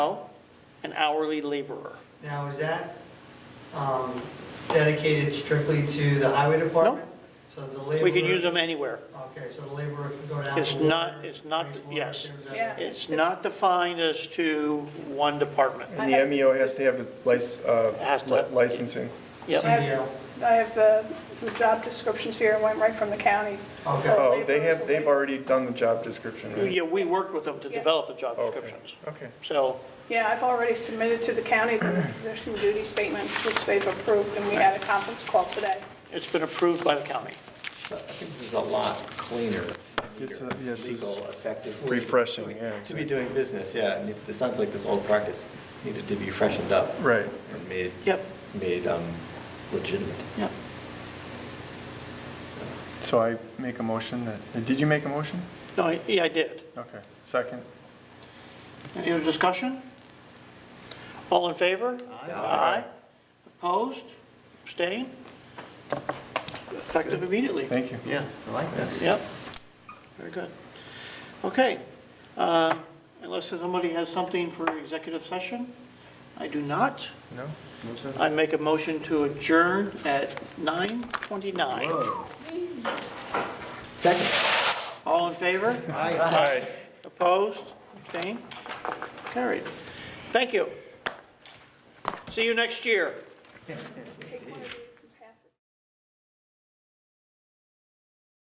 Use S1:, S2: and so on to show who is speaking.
S1: an hourly laborer.
S2: Now, is that um, dedicated strictly to the highway department? So the labor.
S1: We can use them anywhere.
S2: Okay, so the laborer can go down.
S1: It's
S2: to water,
S1: not- it's not-
S2: wastewater,
S1: yes.
S2: things like
S3: Yeah.
S2: that.
S1: It's not defined as to one department.
S3: I
S4: And
S3: have-
S4: the MEO has to have a lic-
S1: Has
S4: uh,
S1: to.
S4: li- licensing.
S1: Yep.
S2: CDL.
S3: I have uh, the job descriptions here, it went right from the counties.
S2: Okay.
S3: So
S4: Oh, they
S3: laborers
S4: have, they've
S3: will-
S4: already done the job description, right?
S1: Yeah, we worked with them to
S3: Yeah.
S1: develop the job
S4: Okay,
S1: descriptions.
S4: Okay,
S1: So,
S3: Yeah, I've already submitted to the county the position duty statements, which they've approved, and we had a conference call today.
S1: it's been approved by the county.
S5: I think this is a lot cleaner,
S4: Yes, uh, yes, it's
S5: legal, effective. way
S4: refreshing, yeah.
S5: To be doing business, yeah. I mean, It sounds like this old practice needed to be freshened up.
S4: Right.
S5: And made.
S1: Yep.
S5: Made um, legitimate.
S1: Yep.
S4: so I make a motion that, did you make a motion?
S1: No, I- yeah, I did.
S4: Okay, second.
S1: Any other discussion? All in favor? Aye. Opposed? Abstain? Effective immediately.
S4: Thank you.
S5: Yeah, I like that.
S1: Yep. Very good. Okay. Uh, Unless somebody has something for executive session? I do not.
S4: No?
S1: I make a motion to adjourn at 9:29.
S5: Second.
S1: All in favor?
S4: Aye.
S1: Opposed? Abstained? Carried. Thank you. See you next year.